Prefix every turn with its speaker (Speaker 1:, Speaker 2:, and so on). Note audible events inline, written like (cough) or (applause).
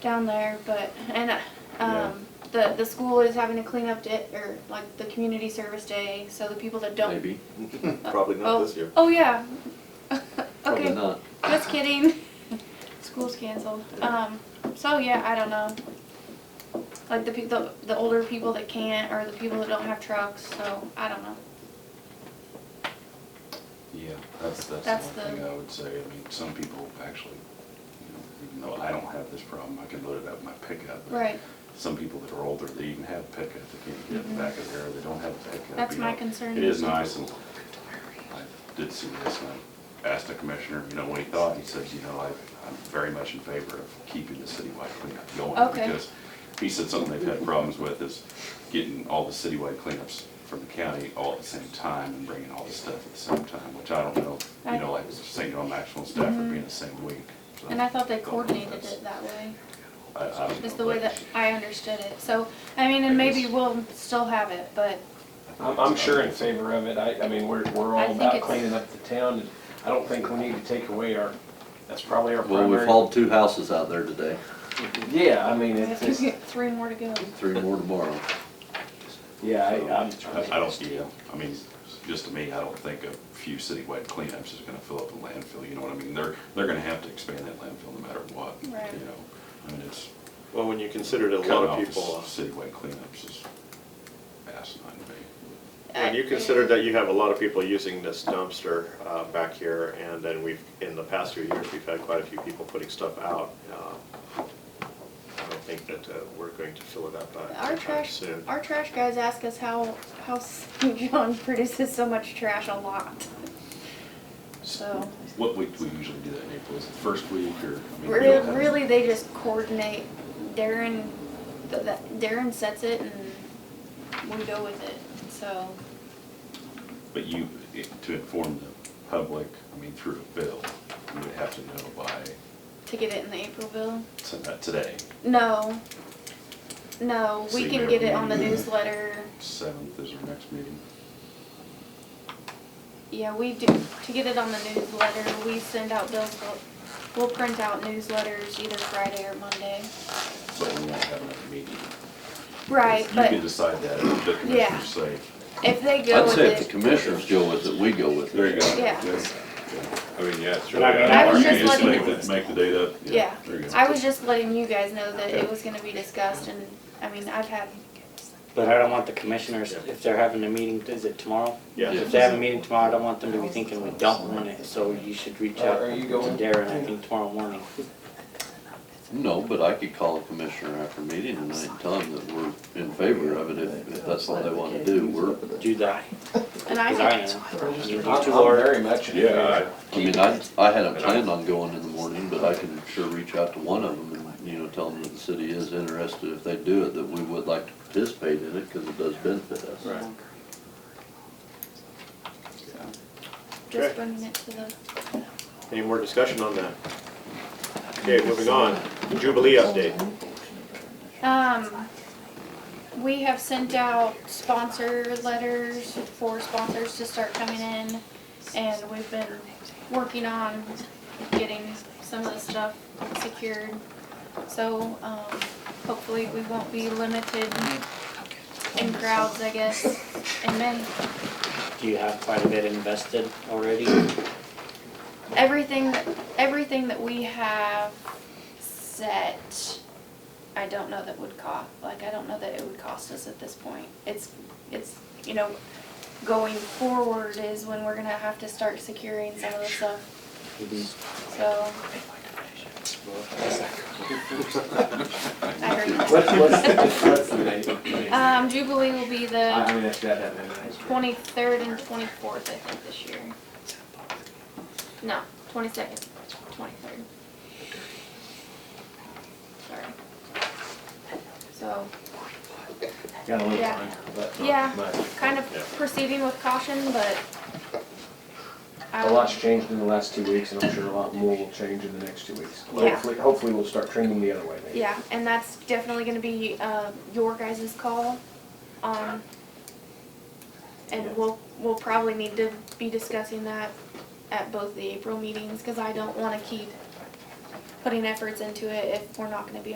Speaker 1: down there, but and uh, um, the the school is having a cleanup day or like the community service day, so the people that don't. (laughs)
Speaker 2: Maybe,
Speaker 3: Probably not
Speaker 1: Oh.
Speaker 3: this year.
Speaker 1: Oh yeah. (laughs)
Speaker 2: probably
Speaker 1: okay,
Speaker 2: not.
Speaker 1: just kidding. School's canceled. Um, so yeah, I don't know. Like the people, the, the older people that can't, or the people that don't have trucks. So I don't know.
Speaker 4: Yeah, that's,
Speaker 1: That's
Speaker 4: that's the
Speaker 1: the-
Speaker 4: only thing I would say. I mean, some people actually, you know, even though I don't have this problem, I can load it up in my pickup.
Speaker 1: Right.
Speaker 4: Some people that are older, they even have pickup, they can't get it
Speaker 1: Mhm.
Speaker 4: back of there, they don't have a pickup.
Speaker 1: That's
Speaker 4: you
Speaker 1: my
Speaker 4: know.
Speaker 1: concern.
Speaker 4: It is nice, and I did see this, and I asked the commissioner, you know, what he thought, he said, you know, I, I'm very much in favor of keeping the citywide cleanup going.
Speaker 1: Okay.
Speaker 4: Because he said something they've had problems with is getting all the citywide cleanups from the county all at the same time and bringing all the stuff at the same time, which I don't know, you know, like St. John Maxwell and Stafford being the same week. so
Speaker 1: And I thought they
Speaker 4: don't know if
Speaker 1: coordinated
Speaker 4: that's-
Speaker 1: it that way.
Speaker 4: I, I don't
Speaker 1: Is
Speaker 4: know,
Speaker 1: the way
Speaker 4: but
Speaker 1: that I understood it. So, I mean, and maybe we'll still have it, but,
Speaker 5: I'm, I'm sure in favor of it, I, I mean, we're, we're
Speaker 1: I
Speaker 5: all
Speaker 1: think
Speaker 5: about
Speaker 1: it's-
Speaker 5: cleaning up the town, and I don't think we need to take away our, that's probably our
Speaker 2: Well, we've
Speaker 5: primary.
Speaker 2: hauled two houses out there today,
Speaker 5: Yeah, I mean,
Speaker 1: we
Speaker 5: it's,
Speaker 1: have to (laughs)
Speaker 5: it's-
Speaker 1: get three more to go.
Speaker 2: three more tomorrow.
Speaker 5: yeah, I, I'm.
Speaker 4: I I don't, yeah, I mean, just to me, I don't think a few citywide cleanups is gonna fill up a landfill, you know what I mean? They're, they're gonna have to expand that landfill no matter what, you
Speaker 1: Right.
Speaker 4: know? I mean, it's,
Speaker 3: Well, when you consider that a lot
Speaker 4: cutting
Speaker 3: of
Speaker 4: off
Speaker 3: people, uh,
Speaker 4: the citywide cleanups is asinine to me.
Speaker 3: when you
Speaker 1: I-
Speaker 3: consider that you have a lot of people using this dumpster uh, back here, and then we've, in the past few years, we've had quite a few people putting stuff out. uh, I don't think that uh, we're going to fill it up uh,
Speaker 1: Our
Speaker 3: anytime
Speaker 1: trash,
Speaker 3: soon.
Speaker 1: our trash guys ask us how, how St. (laughs) John produces so much trash a lot. So,
Speaker 4: What week do we usually do that in April? Is it the first week or? I mean, we
Speaker 1: really,
Speaker 4: don't have-
Speaker 1: really, they just coordinate. Darren, th- that- Darren sets it and we go with it, so.
Speaker 4: But you, it- to inform the public, I mean, through a bill, you would have to know by,
Speaker 1: To get it in the April bill?
Speaker 4: so not today,
Speaker 1: No. No,
Speaker 4: So
Speaker 1: we
Speaker 4: you
Speaker 1: can
Speaker 4: never
Speaker 1: get it on the
Speaker 4: knew.
Speaker 1: newsletter.
Speaker 4: seventh is our next meeting.
Speaker 1: Yeah, we do, to get it on the newsletter, we send out bills, we'll, we'll print out newsletters either Friday or Monday.
Speaker 4: but we won't have another meeting.
Speaker 1: Right,
Speaker 4: You
Speaker 1: but
Speaker 4: can decide that, if the
Speaker 1: Yeah.
Speaker 4: commissioners say.
Speaker 1: if they go
Speaker 2: I'd
Speaker 1: with
Speaker 2: say if the
Speaker 1: it,
Speaker 2: commissioners go with it, we go with it.
Speaker 1: Yeah.
Speaker 6: I mean, yeah, it's
Speaker 5: And
Speaker 6: really.
Speaker 5: I mean, I
Speaker 1: was
Speaker 4: You
Speaker 1: just
Speaker 4: just
Speaker 1: letting-
Speaker 4: make the, make the date up.
Speaker 1: yeah.
Speaker 4: There you go.
Speaker 1: I was just letting you guys know that it was gonna be discussed and, I mean, I've had,
Speaker 7: But I don't want the commissioners, if they're having a meeting, is it tomorrow?
Speaker 3: Yeah,
Speaker 7: If they have a meeting tomorrow, I don't want them to be thinking we don't want it, so you should reach out
Speaker 5: Are
Speaker 7: to
Speaker 5: you going?
Speaker 7: Darren, I think tomorrow morning.
Speaker 2: No, but I could call a commissioner after meeting and I'd tell them that we're in favor of it if, if that's all they want to do. We're,
Speaker 7: Do that,
Speaker 1: and
Speaker 7: because
Speaker 1: I,
Speaker 7: I am.
Speaker 5: I'm
Speaker 7: You
Speaker 5: I'm very much in
Speaker 6: Yeah,
Speaker 5: favor.
Speaker 2: I mean, I, I hadn't planned on going in the morning, but I can sure reach out to one of them and, you know, tell them that the city is interested if they do it, that we would like to participate in it because it does benefit us.
Speaker 4: Right.
Speaker 1: just bringing it to the,
Speaker 3: any more discussion on that? Okay, moving on, Jubilee update.
Speaker 1: um, we have sent out sponsor letters for sponsors to start coming in. And we've been working on getting some of the stuff secured. So, um, hopefully we won't be limited in crowds, I guess, in May.
Speaker 7: Do you have quite a bit invested already?
Speaker 1: Everything, that everything that we have set, I don't know that would cost, like, I don't know that it would cost us at this point. It's, it's, you know, going forward is when we're gonna have to start securing some of the stuff, so. I heard you.
Speaker 5: What's, what's, what's the
Speaker 1: (laughs)
Speaker 5: date?
Speaker 1: Um, Jubilee will be
Speaker 5: I
Speaker 1: the
Speaker 5: mean, that's that, that, that.
Speaker 1: twenty-third and twenty-fourth, I think, this year. No, twenty-second, twenty-third. Sorry. So,
Speaker 5: Got a little
Speaker 1: Yeah.
Speaker 5: time, but
Speaker 1: Yeah.
Speaker 5: not much.
Speaker 1: kind of proceeding with caution, but. I Um,
Speaker 5: A lot's changed in the last two weeks, and I'm sure a lot more will change in the next two weeks.
Speaker 1: Yeah.
Speaker 5: Hopefully, hopefully we'll start trending the other way maybe.
Speaker 1: Yeah, and that's definitely gonna be, uh, your guys' call, um, and we'll, we'll probably need to be discussing that at both the April meetings, cause I don't wanna keep putting efforts into it if we're not gonna be